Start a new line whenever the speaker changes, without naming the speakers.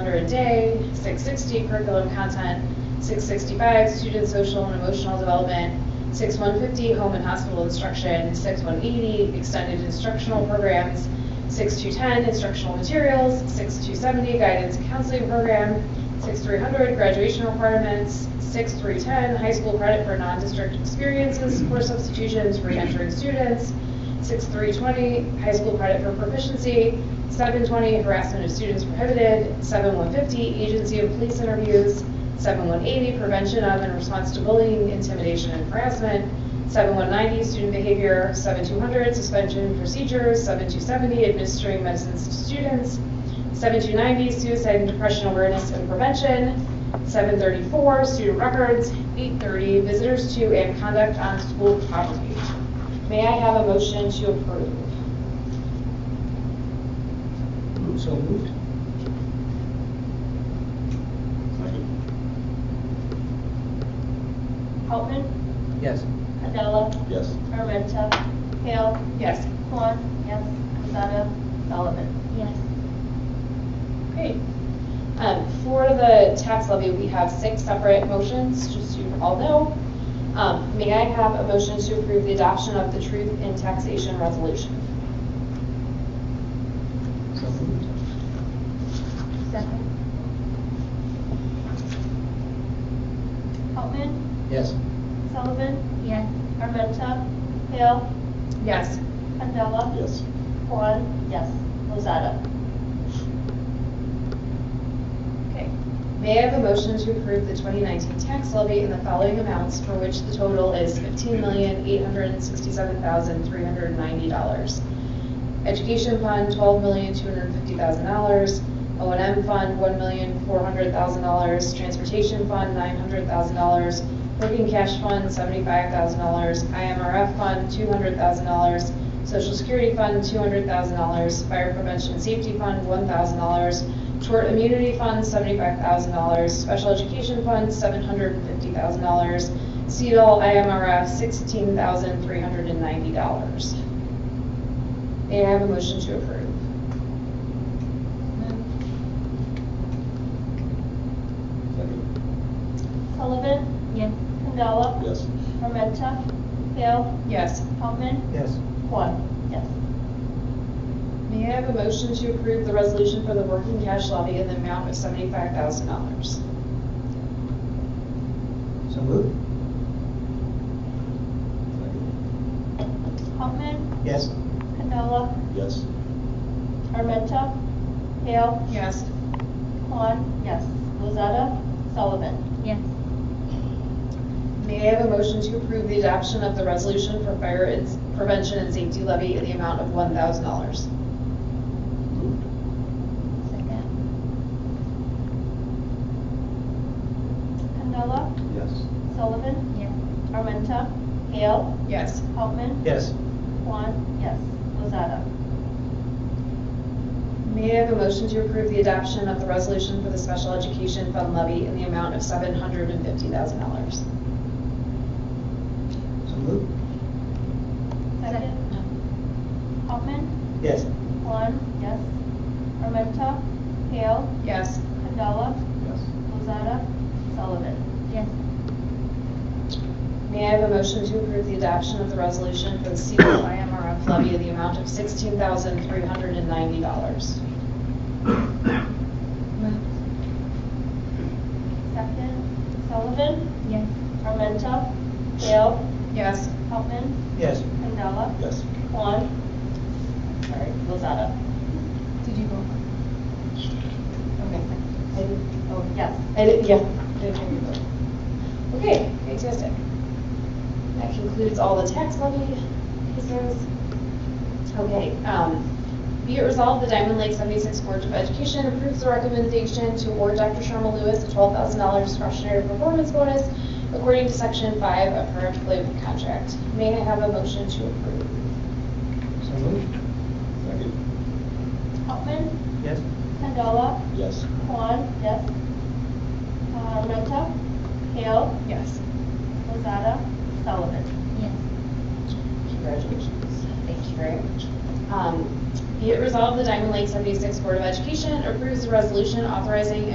per day, six sixty curriculum content, six sixty-five student social and emotional development, six one fifty home and hospital instruction, six one eighty extended instructional programs, six two ten instructional materials, six two seventy guidance and counseling program, six three hundred graduation requirements, six three ten high school credit for non-district experiences for substitutions for entering students, 6320, high school credit for proficiency, 720, harassment of students prohibited, 7150, agency of police interviews, 7180, prevention of and response to bullying, intimidation, and harassment, 7190, student behavior, 7200, suspension procedures, 7270, administering medicines to students, 7290, suicide and depression awareness and prevention, 734, student records, 830, visitors to and conduct on school property. May I have a motion to approve?
So moved.
Second.
Altman,
Yes.
Candela,
Yes.
Armenta, Hale,
Yes.
Juan, yes, Lozada, Sullivan.
yes,
Great. Um, For the tax levy, we have six separate motions, just so you all know. Um, May I have a motion to approve the adoption of the truth in taxation resolution?
So moved.
Second. Altman,
Yes.
Sullivan,
yes,
Armenta, Hale,
Yes.
Candela,
Yes.
Juan, yes, Lozada.
Okay. May I have a motion to approve the 2019 tax levy in the following amounts for which the total is $15,867,390? Education Fund, $12,250,000. O and M Fund, $1,400,000. Transportation Fund, $900,000. Working Cash Fund, $75,000. IMRF Fund, $200,000. Social Security Fund, $200,000. Fire Prevention Safety Fund, $1,000. Tort Immunity Fund, seventy-five thousand dollars, Special Education Fund, seven hundred and fifty thousand dollars, CEDOL IMRF, sixteen thousand three hundred and ninety dollars. May I have a motion to approve?
Second.
Sullivan,
yes,
Candela,
Yes.
Armenta, Hale,
Yes.
Altman,
Yes.
Juan, yes,
May I have a motion to approve the resolution for the working cash levy in the amount of seventy-five thousand dollars?
So moved.
Second.
Altman,
Yes.
Candela,
Yes.
Armenta, Hale,
Yes.
Juan, yes, Lozada, Sullivan.
yes,
May I have a motion to approve the adoption of the resolution for fire ins- prevention and safety levy in the amount of one thousand dollars?
Moved.
second,
Candela,
Yes.
Sullivan,
yes,
Armenta, Hale,
Yes.
Altman,
Yes.
Juan, yes, Lozada.
May I have a motion to approve the adoption of the resolution for the special education fund levy in the amount of seven hundred and fifty thousand dollars?
So moved.
Second, Altman,
Yes.
Juan, yes, Armenta, Hale,
Yes.
Candela,
Yes.
Lozada, Sullivan.
yes,
May I have a motion to approve the adoption of the resolution for the CDL IMRF levy in the amount of sixteen thousand three hundred and ninety dollars?
moved,
Second, Sullivan,
yes,
Armenta, Hale,
Yes.
Altman,
Yes.
Candela,
Yes.
Juan, sorry, Lozada.
Did you vote? Okay. I didn't,
Oh, yes.
I didn't, yeah, I didn't hear you vote. Okay, fantastic. That concludes all the tax levy pieces. Okay, um, be it resolved, the Diamond Lake 76 Board of Education approves the recommendation to award Dr. Sharma Lewis a $12,000 discretionary performance bonus according to Section 5 of her employment contract. May I have a motion to approve?
So moved.
Second.
Altman,
Yes.
Candela,
Yes.
Juan, yes, Uh, Armenta, Hale,
Yes.
Lozada, Sullivan.
yes,
Congratulations. Thank you very much. Um, Be it resolved, the Diamond Lake 76 Board of Education approves the resolution authorizing